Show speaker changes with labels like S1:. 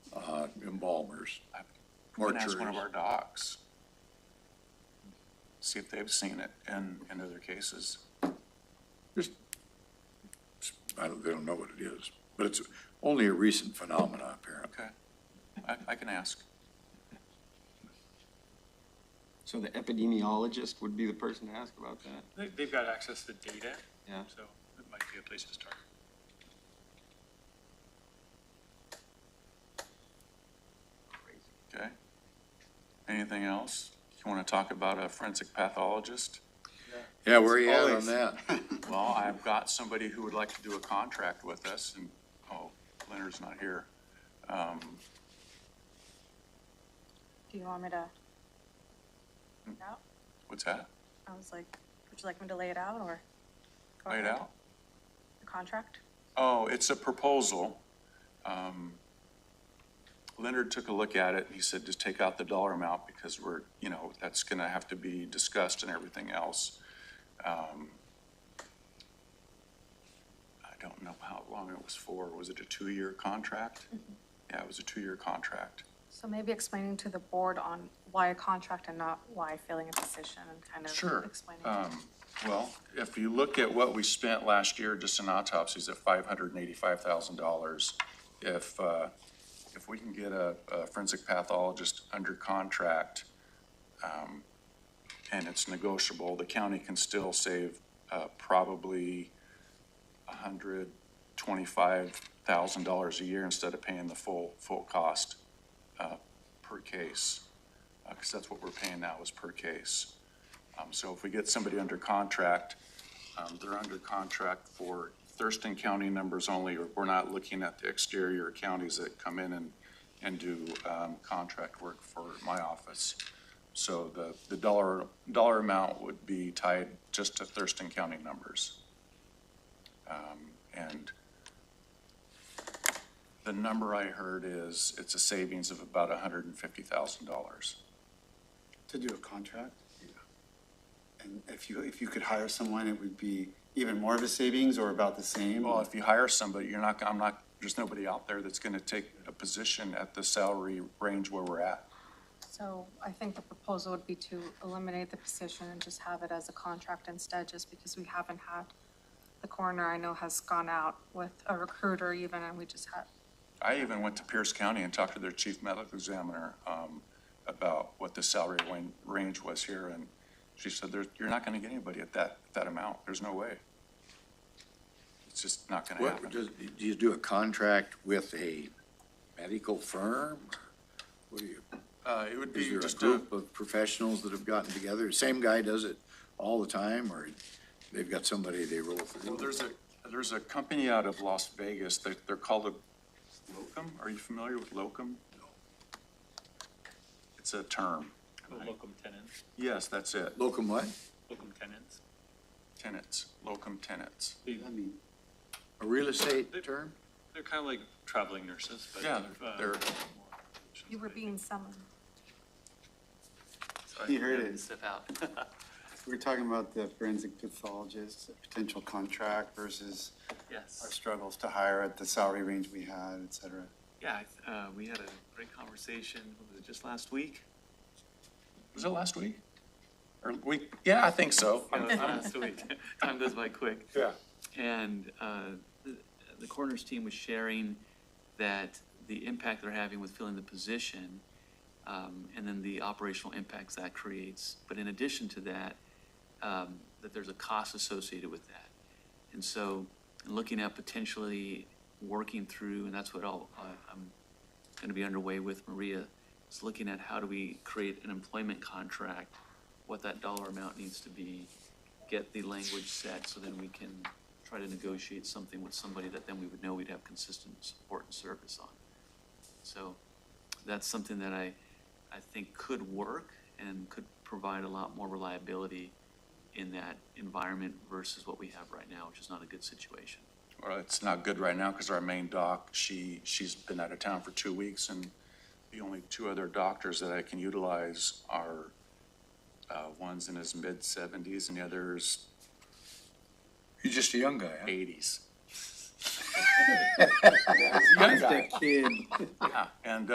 S1: uh, embalmers
S2: We
S1: or
S2: can ask one of
S1: juries.
S2: our docs. See if they've seen it in, in other cases.
S1: Just, I don't, they don't know what it is, but it's only a recent phenomenon apparently.
S2: Okay. I, I can ask.
S3: So the epidemiologist would be the person to ask about that?
S4: They, they've got access to data,
S3: Yeah.
S4: so it might be a place to start.
S2: Okay? Anything else? You want to talk about a forensic pathologist?
S1: Yeah, where are you at on
S5: Always.
S1: that?
S2: Well, I've got somebody who would like to do a contract with us and, oh, Leonard's not here. Um,
S6: Do you want me to? No,
S2: what's that?
S6: I was like, would you like me to lay it out or? go
S2: Lay it
S6: ahead?
S2: out?
S6: The contract?
S2: Oh, it's a proposal. Um, Leonard took a look at it and he said, just take out the dollar amount because we're, you know, that's gonna have to be discussed and everything else. Um, I don't know how long it was for. Was it a two-year contract? Yeah, it was a two-year contract.
S6: So maybe explaining to the board on why a contract and not why filling a position and kind
S2: Sure.
S6: of explaining.
S2: Um, well, if you look at what we spent last year just in autopsies at five hundred and eighty-five thousand dollars, if, uh, if we can get a a forensic pathologist under contract, um, and it's negotiable, the county can still save, uh, probably hundred twenty-five thousand dollars a year instead of paying the full, full cost, uh, per case. Uh 'cause cause that's what we're paying now is per case. Um, so if we get somebody under contract, um, they're under contract for Thurston County numbers only, or we're not looking at the exterior counties that come in and, and do, um, contract work for my office. So the, the dollar, dollar amount would be tied just to Thurston County numbers. Um, and the number I heard is, it's a savings of about hundred and fifty thousand dollars.
S5: To do a contract? And if you, if you could hire someone, it would be even more of a savings or about the same?
S2: Well, if you hire somebody, you're not, I'm not, there's nobody out there that's gonna take a position at the salary range where we're at.
S6: So I think the proposal would be to eliminate the position and just have it as a contract instead, just because we haven't had. The coroner I know has gone out with a recruiter even, and we just had,
S2: I even went to Pierce County and talked to their chief medical examiner, um, about what the salary wan- range was here, and she said, there, you're not gonna get anybody at that, that amount, there's no way. It's just not gonna
S1: What,
S2: happen.
S1: does, do you do a contract with a medical firm? What do you,
S2: Uh, it would
S1: is
S2: be
S1: there a
S2: just a,
S1: group of professionals that have gotten together? Same guy does it all the time or they've got somebody they roll
S2: well,
S1: through?
S2: there's a, there's a company out of Las Vegas, they, they're called a locum, are you familiar with locum? It's a term. Right.
S4: Locum tenens,
S2: Yes, that's it.
S1: Locum what?
S4: locum tenens.
S2: Tenants, locum tenants.
S4: They,
S5: I mean,
S1: A real estate term?
S4: they're kind of like traveling nurses, but.
S2: Yeah,
S4: uh,
S2: they're,
S6: you were being summoned.
S5: He heard it.
S7: Step out.
S5: we We're talking about the forensic pathologist, potential contract versus our
S7: Yes.
S5: struggles to hire at the salary range we had, et cetera.
S7: Yeah, I th- uh, we had a great conversation, what was it just last week?
S2: was it last week? Or week, yeah, I think so.
S7: Yeah, it was last week. Time goes by quick.
S2: Yeah.
S7: And uh, the the coroner's team was sharing that the impact they're having with filling the position um, and then the operational impacts that creates. But in addition to that, um, that there's a cost associated with that. And so looking at potentially working through, and that's what I'll, I- I'm going to be underway with Maria, is looking at how do we create an employment contract, what that dollar amount needs to be, get the language set so then we can try to negotiate something with somebody that then we would know we'd have consistent support and service on. So that's something that I, I think could work and could provide a lot more reliability in that environment versus what we have right now, which is not a good situation.
S2: Well, it's not good right now because our main doc, she, she's been out of town for two weeks and the only two other doctors that I can utilize are, uh, one's in his mid seventies and the other's
S1: You're just a young guy, huh?
S2: eighties.
S5: Young guy. kid.
S2: Yeah, and,